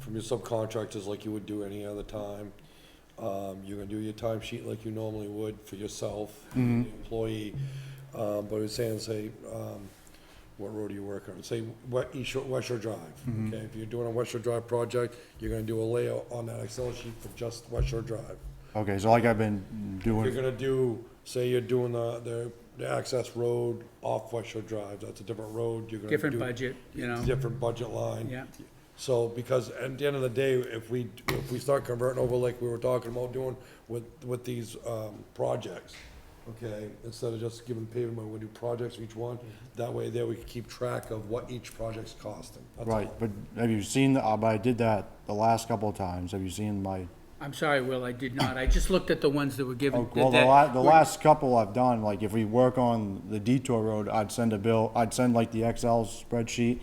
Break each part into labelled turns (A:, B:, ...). A: from your subcontractors like you would do any other time. Um, you're gonna do your time sheet like you normally would for yourself, the employee. Um, but it's saying, say, um, what road are you working on? Say, what, East Shore, West Shore Drive, okay? If you're doing a West Shore Drive project, you're gonna do a layout on that Excel sheet for just West Shore Drive.
B: Okay, so like I've been
A: You're
B: doing,
A: gonna do, say you're doing the, the, the access road off West Shore Drive, that's a different road, you're gonna do.
C: Different budget, you know?
A: Different budget line.
C: Yeah.
A: So, because at the end of the day, if we, if we start converting over like we were talking about doing with, with these, um, projects, okay, instead of just giving paving money, we do projects each one, that way there we can keep track of what each project's costing. That's all.
B: right, but have you seen, the- uh, but I did that the last couple of times, have you seen my,
C: I'm sorry, Will, I did not. I just looked at the ones that were given.
B: well, the
C: that-
B: la, the last couple I've done, like if we work on the detour road, I'd send a bill, I'd send like the Excel spreadsheet,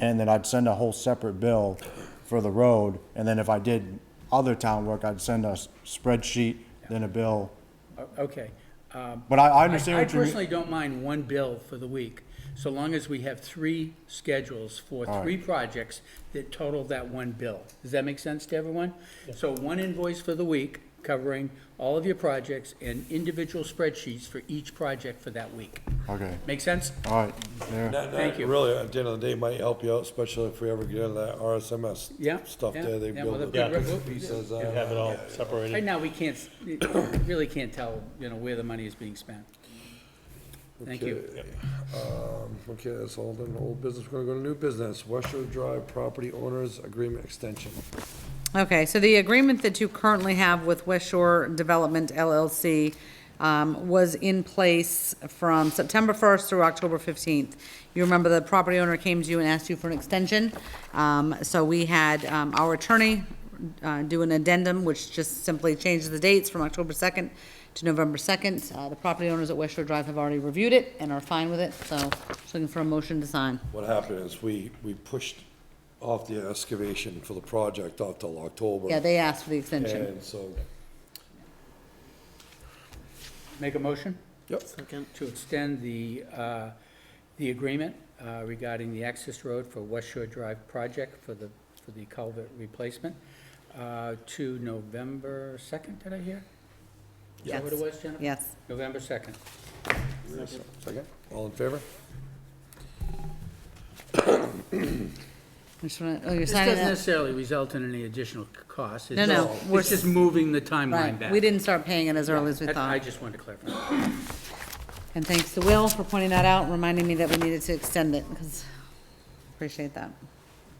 B: and then I'd send a whole separate bill for the road, and then if I did other town work, I'd send a s- spreadsheet, then a bill,
C: Oh, Okay. Um,
B: but I, I
C: I
B: understand
C: I
B: what you mean.
C: personally don't mind one bill for the week, so long as we have three schedules for
B: All right.
C: three projects that total that one bill. Does that make sense to everyone? So one invoice for the week covering all of your projects and individual spreadsheets for each project for that week.
B: Okay,
C: Make sense?
B: all right, there.
A: That- that
C: Thank you.
A: Really, at the end of the day, might help you out, especially if we ever get into that RSMS
C: Yeah,
A: stuff
C: yeah,
A: there, they
C: yeah, well,
A: build
C: that'd be
A: the
C: great. We'll-
A: pieces.
C: yeah.
A: uh,
D: Have it all
C: Right
D: separated.
C: now, we can't, s- really can't tell, you know, where the money is being spent. Thank you.
A: Okay. Um, Okay, that's all done, old business, we're gonna go to new business, West Shore Drive Property Owners Agreement Extension.
E: Okay, so the agreement that you currently have with West Shore Development LLC um, was in place from September 1st through October 15th. You remember the property owner came to you and asked you for an extension. Um, So we had um, our attorney uh, do an addendum, which just simply changes the dates from October 2nd to November 2nd. Uh, The property owners at West Shore Drive have already reviewed it and are fine with it, so just looking for a motion to sign.
A: What happened is we, we pushed off the excavation for the project off till October.
E: Yeah, they asked for the extension.
A: And so,
C: Make a motion?
A: yep,
C: to extend the, uh, the agreement uh, regarding the access road for West Shore Drive project for the, for the culvert replacement uh, to November 2nd, did I hear? Is that what it
E: Yes.
C: was, Jennifer?
E: Yes.
C: November 2nd.
A: second, all in favor?
E: I just wanna- oh, you're
C: This
E: signing
C: doesn't
E: that?
C: necessarily result in any additional c- cost. It's
E: No, no,
C: just-
E: we're
C: It's just moving the timeline
E: Right,
C: back.
E: we didn't start paying it as early as we
C: That- I
E: thought.
C: just wanted to clarify.
E: And thanks to Will for pointing that out, and reminding me that we needed to extend it, because, appreciate that.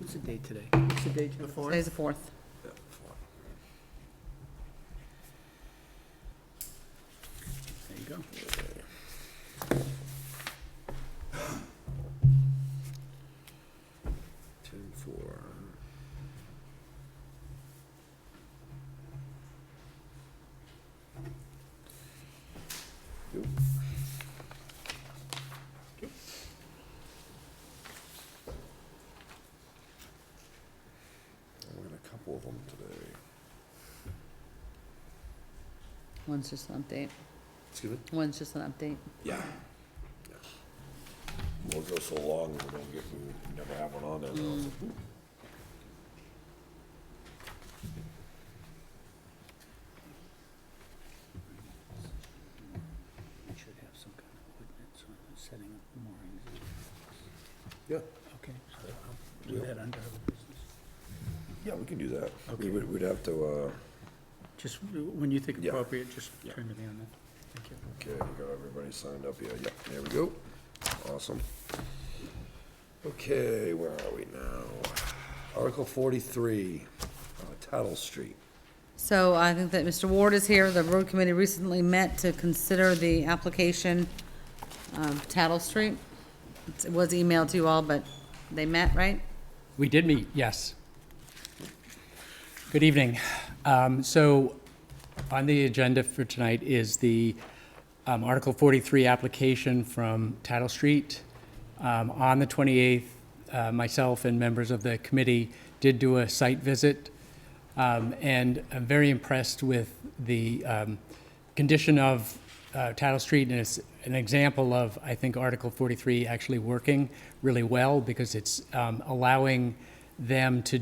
C: What's the date today? What's the date? Jennifer?
E: Today's the fourth.
C: There you go.
A: Ten, four. Yep. I got a couple of them today.
E: One's just an update.
A: Excuse me?
E: One's just an update.
A: Yeah. We'll go so long, we don't get, we never have one on there. though.
C: I should have some kind of ordinance on setting up moorings.
A: Yeah,
C: Okay, so I'll do that under other business.
A: yeah, we can do that. We would, we'd have to, uh,
C: Just when you think
A: Yeah.
C: appropriate, just turn to me on that. Thank you.
A: Okay, we got everybody signed up here, yeah, there we go, awesome. Okay, where are we now? Article forty-three, uh, Tattle Street.
E: So I think that Mr. Ward is here. The road committee recently met to consider the application of Tattle Street. It was emailed to you all, but they met, right?
F: We did meet, yes. Good evening. Um, So on the agenda for tonight is the um, Article 43 application from Tattle Street. Um, On the 28th, uh, myself and members of the committee did do a site visit, um, and I'm very impressed with the um, condition of uh, Tattle Street, and it's an example of, I think, Article 43 actually working really well, because it's um, allowing them to